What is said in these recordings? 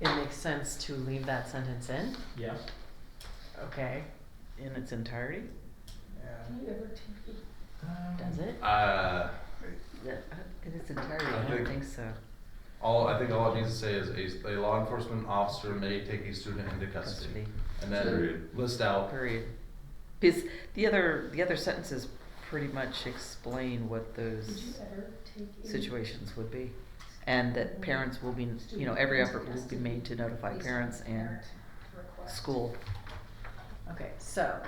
it makes sense to leave that sentence in, Yeah. okay, in its entirety, does it? Uh, Yeah, In its entirety, I I don't think- think so. all, I think all it needs to say is a, a law enforcement officer may take a student into custody. Custody. And then Period. list out, Period. Because the other, the other sentences pretty much explain what those situations would be. And that parents will be, you know, every effort will be made to notify parents and school. Okay, so,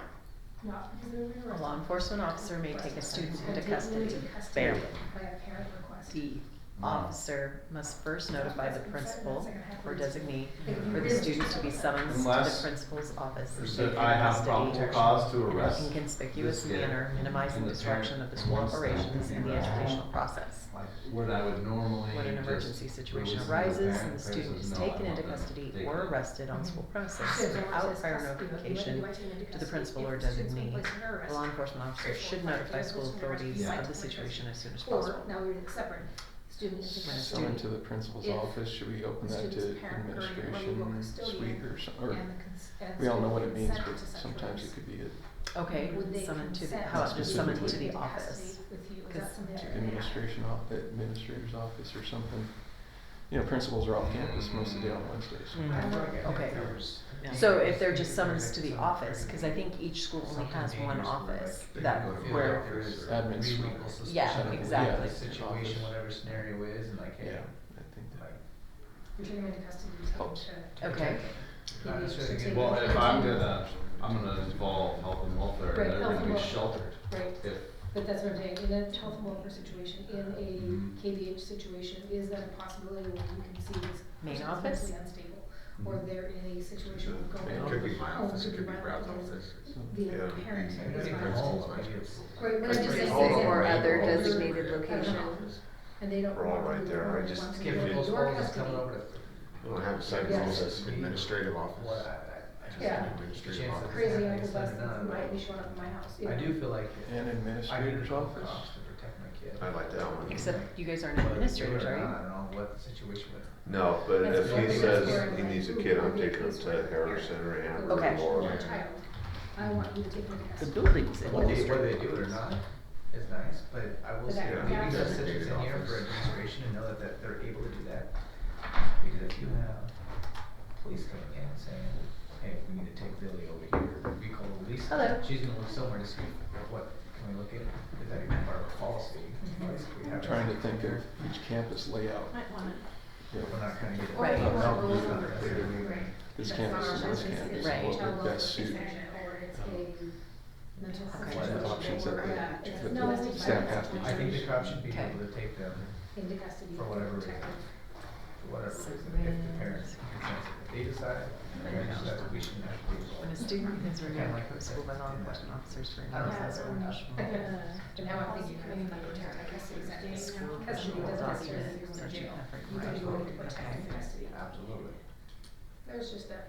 a law enforcement officer may take a student into custody. Bam. By a parent request. D, officer must first notify the principal or designee for the student to be summoned to the Unless- principal's office. Or and said, taken "I have custody probable in cause to arrest In a conspicuous this kid, manner, minimizing and the disruption of parent the school wants them to operations be and the arrested." educational process. like, what I would normally When an just emergency situation release to the arises parent, and the parent student says, is "No, I taken want into them custody taken." or arrested on school premises without prior notification to the principal or designee, the law enforcement officer should notify school authorities Yeah. of the situation as soon as Or, possible. now we're in separate, student is When a a Someone student- to the principal's If office, should we open the that to student's parent or legal administration suite custodian or some, and or, the cons- and we all know what it student means, consent but to such sometimes it release. could be a Okay, Would they summoned to the, consent how about just summoned to Specifically. the be in custody office? With you, is 'Cause that something that? administration off, administrator's office or something. You know, principals are off campus most of the day on Wednesdays. Mm, Okay, so if they're just summons to the office, cause I think each school only has one office that where, Admin suite. Yeah, Yeah, exactly. Situation, whatever scenario is, and like, hey, Yeah, I think that. like, You're taking them into custody, you're taking Helps. them to- okay, not necessarily Take gonna- Well, them if I'm to- gonna, I'm gonna involve health and welfare, Right, they're health gonna and be welfare. sheltered. Right, If, but that's what I'm saying, in a health and welfare situation, in Mhm. a KVH situation, is that a possibility where you can see this Main person is office? mentally unstable? Or Mhm. they're in a situation where going. It on could with be their own, could be violent, The parent. I mean, it's is not violent. all, like, it's- Right, but I'm just saying. Hold on, or or other older- designated I don't location. know. And they don't. We're all want to right be there, the I one just- wants to If go to those your calls custody. coming over to. We'll have a second Yes. office, administrative What, office. I, I just. Yeah. Administrative Chances office. Crazy Yeah, uncle it's not buses done, might be but- showing up at my house. you I know. do feel like. if- An I do administrator's feel office? cops to protect my kid. I like that one. except you guys aren't But administrators, do it or are not, I don't know what the situation would. No, but That's if what he we says were he needs a doing. kid, I'm taking him to Harrison or Amber Okay. or Your Laura. child, I want you to take them to you? The custody. building's What they, whether administrative. they do it or not is nice, but I will But say, that- Yeah. leaving those systems in here for Office. administration and know that, that they're able to do that. Because if you have uh, police coming in saying, hey, we need to take Lily over here, we call the police. Hello. She's gonna look somewhere to see what, can we look at, is that even part of our policy? Mm-hmm. Like, we I'm have trying it. to think of each campus layout. Might wanna. you know, We're not gonna get. Or Right. if you want No, to it's roll not over. gonna They happen. didn't even- This That's campus not is our this business. campus, It's Right. what child would best welfare suit? intervention Or it's Oh. a mental health Okay. What situation options that or, they- yeah, it's- that no, the it's just staff violence has to and I think the intimidation cops should be Okay. able to take them, Into custody. for whatever reason. protective. for whatever reason, if the parents, if they decide, then we should- we shouldn't have to be involved. When a student is removed from school by law Yeah. enforcement officers for I don't know. an unreasonable But now I'm thinking, I mean, like, you're tearing a custody, The that's school custody official will doesn't necessarily document mean such an jail. effort. You can do by- it with protective Okay. custody. Absolutely. There's just that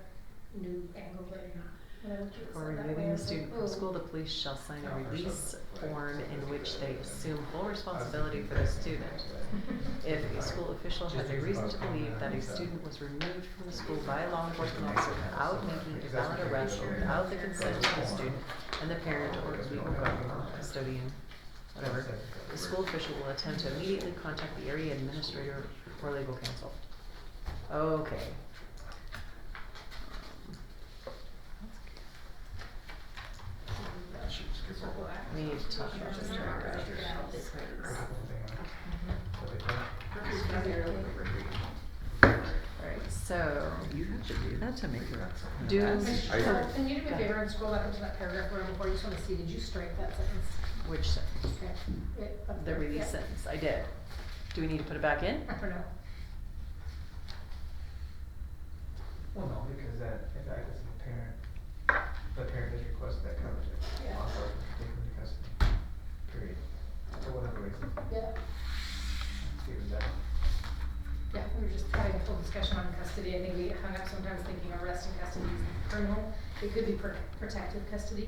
new angle that you're not. when I looked at it, For it's like, removing oh, the student from oh, school, the police shall sign a release form in which they assume full responsibility for the student. If a school official has a reason to believe that a student was removed from the school by a law enforcement officer without making a valid arrest or without the consent of the student and the parent or legal guardian, custodian, whatever, the school official will attempt to immediately contact the area administrator or legal counsel. Okay. We need to talk about this. for a minute. Alright, so. You have to do that to make it. Do. And I- Cheryl, Can you do me Go a ahead. favor and scroll back up to that paragraph where I'm before, I just wanna see, did you strike that sentence? Which sentence? Okay. Right up The there. release Yeah. sentence, I did. Do we need to put it back in? I don't know. Well, no, because that, if that is the parent, the parent has requested that coverage, Yeah. also take them to custody, period, for whatever reason, Yeah, see if that. yeah, we were just having a full discussion on custody, I think we hung up sometimes thinking arrest and custody is criminal, it could be pr- protective custody,